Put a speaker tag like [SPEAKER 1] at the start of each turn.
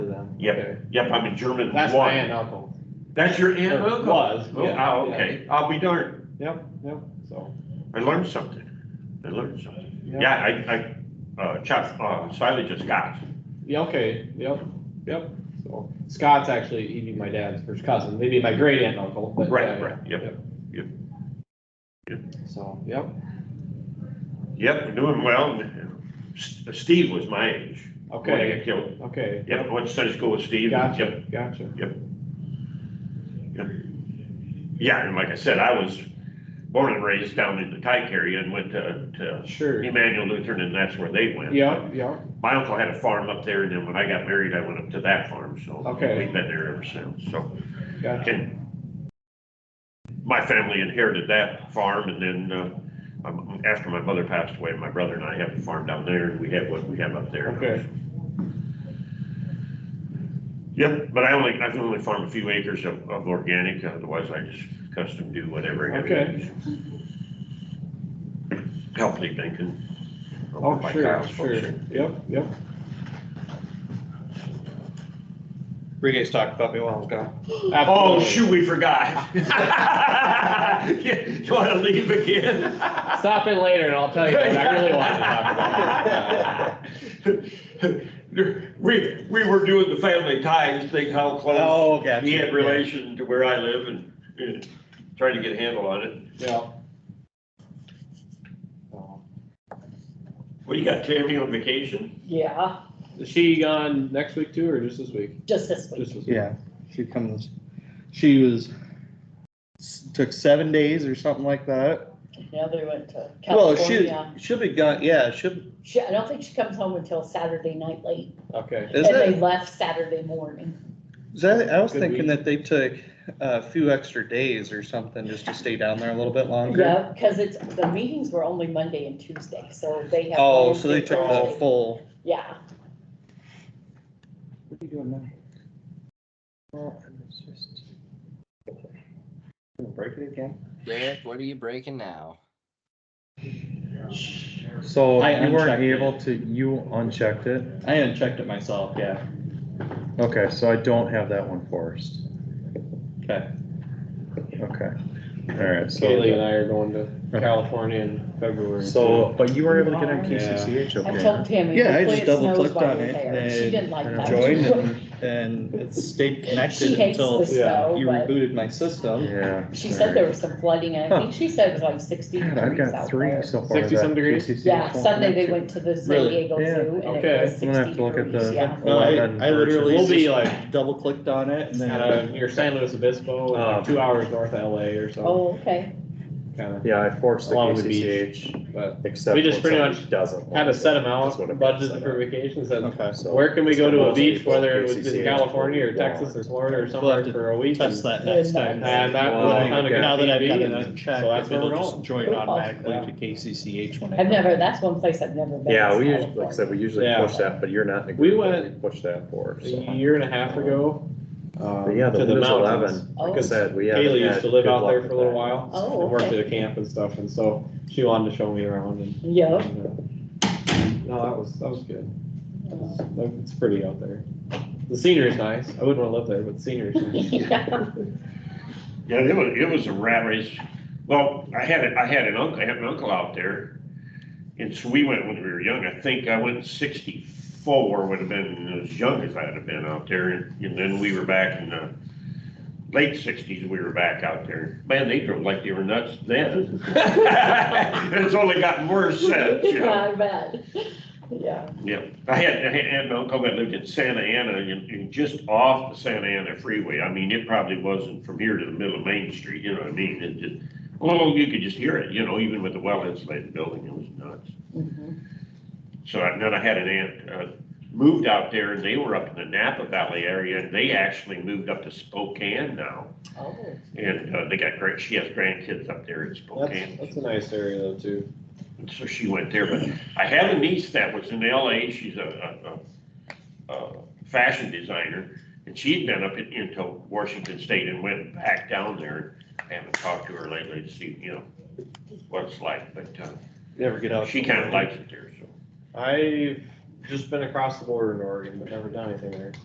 [SPEAKER 1] Yep,
[SPEAKER 2] Okay.
[SPEAKER 1] yep, I'm a German
[SPEAKER 2] That's my
[SPEAKER 1] one.
[SPEAKER 2] aunt uncle.
[SPEAKER 1] That's your aunt and uncle?
[SPEAKER 2] Was,
[SPEAKER 1] Oh,
[SPEAKER 2] yeah,
[SPEAKER 1] ah,
[SPEAKER 2] yeah.
[SPEAKER 1] okay, I'll be darned.
[SPEAKER 2] Yep, yep, so.
[SPEAKER 1] I learned something. I learned something. Yeah, I, I, uh, Chuck, uh, Siley just got.
[SPEAKER 2] Yeah, okay, yep, yep, so Scott's actually, he'd be my dad's first cousin, maybe my great aunt uncle, but.
[SPEAKER 1] Right,
[SPEAKER 2] yeah, yeah,
[SPEAKER 1] right, yep, yep, yep.
[SPEAKER 2] So, yep,
[SPEAKER 1] Yep, we're doing well. S- Steve was my age. when I
[SPEAKER 2] okay,
[SPEAKER 1] got killed.
[SPEAKER 2] okay.
[SPEAKER 1] Yep, I went to Sunday school with Steve. Yep,
[SPEAKER 2] Gotcha, gotcha,
[SPEAKER 1] yep. Yeah, and like I said, I was born and raised down in the Tyke area and went to, to
[SPEAKER 2] sure,
[SPEAKER 1] Emmanuel Lutheran and that's where they went.
[SPEAKER 2] yeah, yeah,
[SPEAKER 1] My uncle had a farm up there and then when I got married, I went up to that farm, so.
[SPEAKER 2] Okay.
[SPEAKER 1] We've been there ever since, so.
[SPEAKER 2] gotcha,
[SPEAKER 1] And my family inherited that farm and then, uh, um, after my mother passed away, my brother and I have a farm down there and we have what we have up there.
[SPEAKER 2] Okay.
[SPEAKER 1] Yep, but I only, I can only farm a few acres of, of organic, otherwise I just custom do whatever. I have to
[SPEAKER 2] Okay.
[SPEAKER 1] use. Healthy thinking.
[SPEAKER 2] oh, sure, sure, yep, yep.
[SPEAKER 3] Brigade's talked about me a while ago.
[SPEAKER 1] Oh,
[SPEAKER 2] Absolutely.
[SPEAKER 1] shoot, we forgot. You wanna leave again?
[SPEAKER 2] Stop it later and I'll tell you what I really wanted to talk about.
[SPEAKER 1] We, we were doing the family ties thing, how close
[SPEAKER 3] Oh, gotcha.
[SPEAKER 1] he had relation to where I live and, and trying to get a handle on it.
[SPEAKER 2] Yeah.
[SPEAKER 1] What, you got Tammy on vacation?
[SPEAKER 4] Yeah,
[SPEAKER 2] Is she gone next week too, or just this week?
[SPEAKER 4] just this week.
[SPEAKER 2] Just this week.
[SPEAKER 3] Yeah, she comes, she was, took seven days or something like that.
[SPEAKER 4] Now they went to
[SPEAKER 3] Well, she,
[SPEAKER 4] California.
[SPEAKER 3] she'll be gone, yeah, she'll, is
[SPEAKER 4] She, I don't think she comes home until Saturday night late.
[SPEAKER 2] Okay,
[SPEAKER 4] And they
[SPEAKER 3] it,
[SPEAKER 4] left Saturday morning.
[SPEAKER 3] is that, I was
[SPEAKER 2] Good
[SPEAKER 3] thinking
[SPEAKER 2] week.
[SPEAKER 3] that they took a few extra days or something just to stay down there a little bit longer.
[SPEAKER 4] Yeah, because it's, the meetings were only Monday and Tuesday, so they have.
[SPEAKER 3] Oh, so they took
[SPEAKER 4] Thursday.
[SPEAKER 3] the full.
[SPEAKER 4] Yeah,
[SPEAKER 3] What are you doing now? Well, it's just- Gonna Break it again?
[SPEAKER 5] Rick, what are you breaking now?
[SPEAKER 6] So
[SPEAKER 3] I
[SPEAKER 6] you weren't
[SPEAKER 3] unchecked it.
[SPEAKER 6] able to, you unchecked it?
[SPEAKER 3] I unchecked it myself, yeah.
[SPEAKER 6] Okay, so I don't have that one forced.
[SPEAKER 3] Okay.
[SPEAKER 6] Okay, all right,
[SPEAKER 2] Kaylee and
[SPEAKER 6] so,
[SPEAKER 2] I are going to
[SPEAKER 6] Okay.
[SPEAKER 2] California in February.
[SPEAKER 6] so, but you were able to get on
[SPEAKER 4] Yeah.
[SPEAKER 6] KCCH,
[SPEAKER 4] I
[SPEAKER 6] okay?
[SPEAKER 4] told Tammy.
[SPEAKER 3] Yeah, I
[SPEAKER 4] hopefully
[SPEAKER 3] just
[SPEAKER 4] it snows
[SPEAKER 3] double-clicked
[SPEAKER 4] while
[SPEAKER 3] on
[SPEAKER 4] you're
[SPEAKER 3] it
[SPEAKER 4] there. She
[SPEAKER 3] and-
[SPEAKER 4] didn't like
[SPEAKER 6] and
[SPEAKER 4] that.
[SPEAKER 3] Joined and, and it stayed
[SPEAKER 4] She
[SPEAKER 3] connected
[SPEAKER 4] hates the
[SPEAKER 3] until
[SPEAKER 4] snow,
[SPEAKER 3] you
[SPEAKER 4] but
[SPEAKER 3] rebooted my system. Uh,
[SPEAKER 6] Yeah.
[SPEAKER 4] she said there was some flooding, and I think she said it was like sixteen
[SPEAKER 6] God, I've
[SPEAKER 4] degrees
[SPEAKER 6] got
[SPEAKER 4] out
[SPEAKER 6] three
[SPEAKER 4] there.
[SPEAKER 6] so far.
[SPEAKER 2] 60 some
[SPEAKER 6] that
[SPEAKER 2] degrees?
[SPEAKER 6] KCCH
[SPEAKER 4] Yeah,
[SPEAKER 6] won't
[SPEAKER 4] Sunday they
[SPEAKER 6] connect
[SPEAKER 4] went to the San
[SPEAKER 3] Really?
[SPEAKER 4] Diego
[SPEAKER 6] Yeah,
[SPEAKER 4] Zoo,
[SPEAKER 2] okay.
[SPEAKER 4] and it was
[SPEAKER 6] I'm gonna have
[SPEAKER 4] sixteen
[SPEAKER 6] to look at
[SPEAKER 4] degrees,
[SPEAKER 6] the-
[SPEAKER 4] yeah.
[SPEAKER 3] Well, I, I literally
[SPEAKER 2] We'll be
[SPEAKER 3] just
[SPEAKER 2] like-
[SPEAKER 3] double clicked on it and then.
[SPEAKER 2] Kind of uh, near San Luis Obispo,
[SPEAKER 6] Oh.
[SPEAKER 2] like two hours north of LA or so,
[SPEAKER 4] Oh, okay,
[SPEAKER 2] kind
[SPEAKER 6] it. Yeah, I forced the
[SPEAKER 2] Along with the
[SPEAKER 6] KCCH,
[SPEAKER 2] but
[SPEAKER 6] except.
[SPEAKER 2] We just
[SPEAKER 6] when
[SPEAKER 2] pretty
[SPEAKER 6] somebody
[SPEAKER 2] much
[SPEAKER 6] Doesn't.
[SPEAKER 2] had to set them out,
[SPEAKER 6] That's what it uh, is, I
[SPEAKER 2] budgeted
[SPEAKER 6] know.
[SPEAKER 2] for vacations, and
[SPEAKER 3] Okay, so
[SPEAKER 2] where can we go to a
[SPEAKER 6] Most
[SPEAKER 2] beach,
[SPEAKER 6] people
[SPEAKER 2] whether it was in
[SPEAKER 6] KCCH
[SPEAKER 2] California or
[SPEAKER 6] will be gone.
[SPEAKER 2] Texas or Florida or
[SPEAKER 3] We'll
[SPEAKER 2] somewhere
[SPEAKER 3] have to
[SPEAKER 2] for a week? And
[SPEAKER 3] test that next time.
[SPEAKER 2] and that
[SPEAKER 6] Wow.
[SPEAKER 2] was kind of
[SPEAKER 3] Now that I've got
[SPEAKER 2] good
[SPEAKER 3] it
[SPEAKER 2] TV,
[SPEAKER 3] unchecked,
[SPEAKER 2] so that's where
[SPEAKER 3] it'll
[SPEAKER 2] we're
[SPEAKER 3] just
[SPEAKER 2] going.
[SPEAKER 3] join
[SPEAKER 4] Cool.
[SPEAKER 3] automatically to KCCH when I.
[SPEAKER 4] I've never, that's one place I've never been.
[SPEAKER 6] Yeah,
[SPEAKER 4] is
[SPEAKER 6] we usually, like I
[SPEAKER 4] California.
[SPEAKER 6] said, we usually
[SPEAKER 2] Yeah.
[SPEAKER 6] push that, but you're not. in
[SPEAKER 2] We
[SPEAKER 6] agreement,
[SPEAKER 2] went
[SPEAKER 6] we Push that for,
[SPEAKER 2] A
[SPEAKER 6] so.
[SPEAKER 2] year and a half ago. um,
[SPEAKER 6] But yeah, the
[SPEAKER 2] to
[SPEAKER 6] Windows
[SPEAKER 2] mountains.
[SPEAKER 6] eleven, like I said, we haven't
[SPEAKER 2] Kaylee used
[SPEAKER 6] had
[SPEAKER 2] to live
[SPEAKER 6] good
[SPEAKER 2] out there for
[SPEAKER 6] luck
[SPEAKER 2] a
[SPEAKER 6] with
[SPEAKER 2] little
[SPEAKER 6] that.
[SPEAKER 2] while.
[SPEAKER 4] Oh,
[SPEAKER 2] And worked
[SPEAKER 4] okay.
[SPEAKER 2] at a camp and stuff, and so she wanted to show me around and.
[SPEAKER 4] Yeah.
[SPEAKER 2] and, uh, No, that was, that was good. Like, It's pretty out there. The scenery's nice. I wouldn't wanna live there, but the scenery's nice.
[SPEAKER 4] Yeah.
[SPEAKER 1] Yeah, it was, it was a rat race. Well, I had, a- I had an uncle, I had an uncle out there. And so we went when we were young. I think I went sixty-four, would have been as young as I'd have been out there. And and then we were back in the late sixties, we were back out there. Man, they drove like they were nuts then. It's only gotten worse since, you know.
[SPEAKER 4] Yeah, I bet. Yeah,
[SPEAKER 1] Yeah, I had, I had had an uncle that lived in Santa Ana, and, and just off the Santa Ana freeway, I mean, it probably wasn't from here to the middle of Main Street, you know what I mean? It just, oh, you could just hear it, you know, even with the well insulated building, it was nuts.
[SPEAKER 4] Mhm.
[SPEAKER 1] So I- then I had an aunt, uh, moved out there, and they were up in the Napa Valley area, and they actually moved up to Spokane now.
[SPEAKER 4] Oh,
[SPEAKER 1] And, uh, they got great, she has grandkids up there in
[SPEAKER 2] That's,
[SPEAKER 1] Spokane.
[SPEAKER 2] that's a nice area though, too.
[SPEAKER 1] And so she went there, but I have a niece that was in LA, she's a, a, a, a fashion designer. And she'd been up in- into Washington State and went back down there. I haven't talked to her lately to see, you know, what it's like, but, uh,
[SPEAKER 3] Never get out.
[SPEAKER 1] she kinda likes it there, so.
[SPEAKER 2] I've just been across the border in Oregon, but never done anything there.